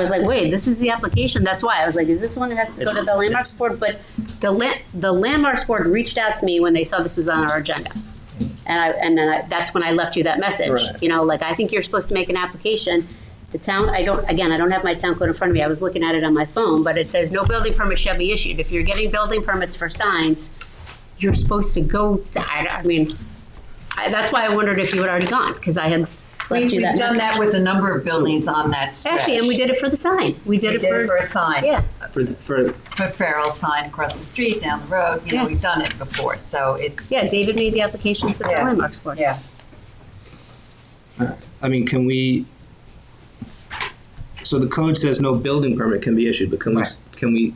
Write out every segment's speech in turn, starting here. I was like, wait, this is the application. That's why I was like, is this the one that has to go It's- to the landmarks it's- board? But the la- the landmarks board reached out to me when they saw this was on our agenda. And I, and then I, that's when I left you that message, Right. you know, like, I think you're supposed to make an application. The town, I don't, again, I don't have my town code in front of me. I was looking at it on my phone, but it says no building permit shall be issued. If you're getting building permits for signs, you're supposed to go to, I, I mean, I, that's why I wondered if you had already gone, because I had We- left you We've that done message. that with a number of buildings on that stretch. Actually, and we did it for the sign. We We did it for for, a sign. yeah. For, for, For Farrell sign across the street, down the road, you Yeah. know, we've done it before, so it's, Yeah, David made the application to the Yeah. landmarks board. yeah. uh, I mean, can we? So the code says no building permit can be issued, but can we, s- can we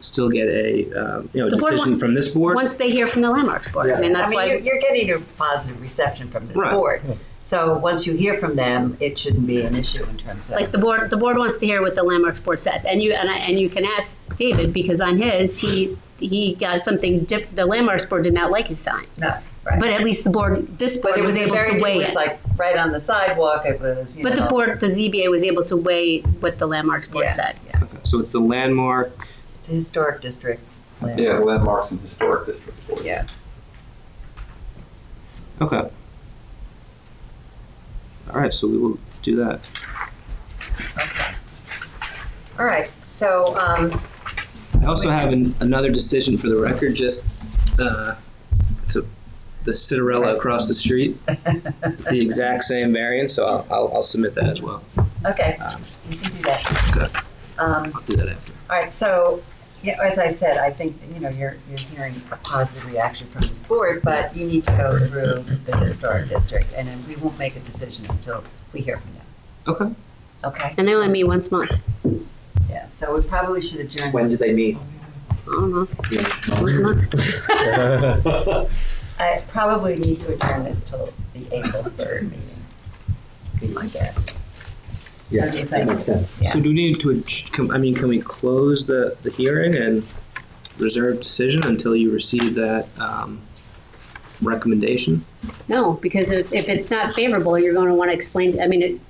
still get a, um, you know, The board decision wa- from this board? Once they hear from the landmarks board, I mean, I that's mean, you're, why, you're getting a positive reception from this Right. board. So once you hear from them, it shouldn't be an issue in terms of. like, the board, the board wants to hear what the landmarks board says. And you, and I, and you can ask David, because on his, he, he got something, dip- the landmarks board did not like his sign. No, right. But at least the board, this But board was a able very to di- weigh It was it. like right on the sidewalk, it was, you know. But the board, the ZBA was able to weigh what the landmarks Yeah. board said. Okay, So it's the landmark, It's a historic district. plan. Yeah, landmarks and historic district board. Yeah. okay. All right, so we will do that. Okay. All right, so, um, I also have an, another decision for the record, just, uh, to the Citarella across the street. It's the exact same variant, so I'll, I'll, I'll submit that as well. okay, Um, you can do that. Good. Um, I'll do that after. All right, so, yeah, as I said, I think, you know, you're, you're hearing a positive reaction from this board, but you need to go through the historic district, and then we won't make a decision until we hear from them, Okay. okay? And they only meet once a month. Yeah, so we probably should adjourn When this. did they meet? I don't know, once a month. I probably need to adjourn this till the April third meeting, be my guess. Yeah, What do you that think? makes sense. Yeah. So do we need to, adj- can- I mean, can we close the, the hearing and reserve decision until you receive that um, recommendation? No, because if, if it's not favorable, you're gonna wanna explain, I mean, it-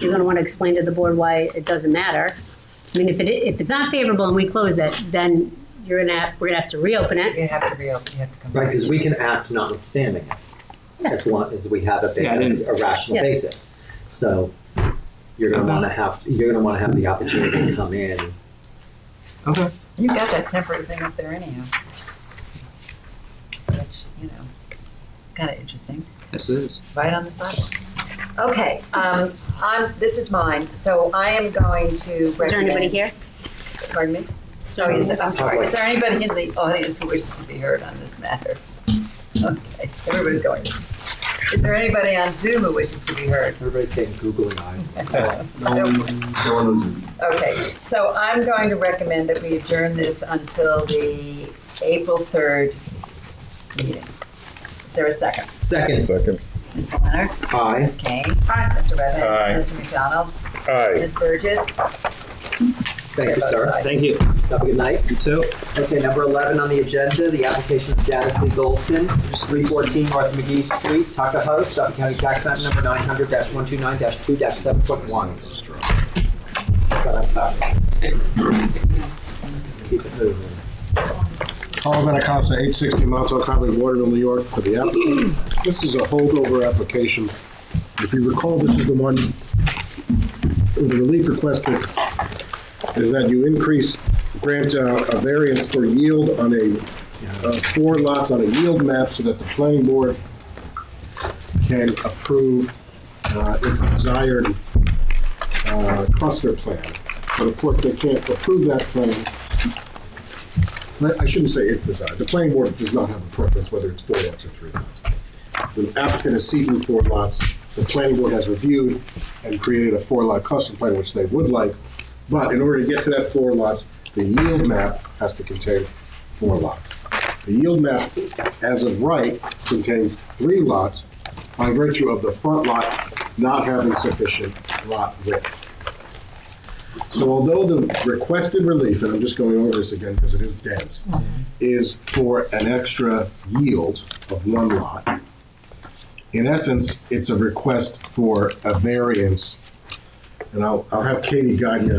you're gonna wanna explain to the board why it doesn't matter. I mean, if it, if it's not favorable and we close it, then you're gonna, have- we're gonna have to reopen it. You have to reopen, you have to come Right, back. because we can act notwithstanding it, as long as we have a big, Yeah, I didn't- a rational Yeah. basis. So you're gonna wanna have, you're gonna wanna have the opportunity to come in. Okay. You got that temporary thing up there anyhow. Which, you know, it's kind of interesting. This is. right on the sidewalk. Okay, um, I'm, this is mine, so I am going to recommend. Is there anybody here? Pardon me? Oh, is it- I'm sorry, Public. is there anybody in the audience who wishes to be heard on this matter? Okay, everybody's going. Is there anybody on Zoom who wishes to be heard? Everybody's getting googly eyed. Okay, so I'm going to recommend that we adjourn this until the April 3rd meeting. Is there a second? Second, Second. Mr. Leonard? aye. Ms. Kane? Mr. Redmond? Aye. Mr. McDonald? Aye. Ms. Burgess? Thank you, sir. Thank you. Have a good night. You too. Okay, number 11 on the agenda, the application of Janice Lee Golson, 314 North McGee Street, Tuckahoe, Suffolk County Tax Map Number 900-129-2-7.1. Keep it moving. Paul Benacasa, 860 Montauk Highway, Waterville, New York, for the applicant. This is a holdover application. If you recall, this is the one, the relief requested is that you increase, grant uh, a variance for yield on a, uh, four lots on a yield map so that the planning board can approve uh, its desired uh, cluster plan. But of course, they can't approve that plan I I shouldn't say it's decided. The planning board does not have a preference whether it's four lots or three lots. The applicant is seeking four lots. The planning board has reviewed and created a four-lot custom plan, which they would like. But in order to get to that four lots, the yield map has to contain four lots. The yield map, as of right, contains three lots by virtue of the front lot not having sufficient lot width. So although the requested relief, and I'm just going over this again because it is dense, is for an extra yield of one lot, in essence, it's a request for a variance And I'll, I'll have Katie guide you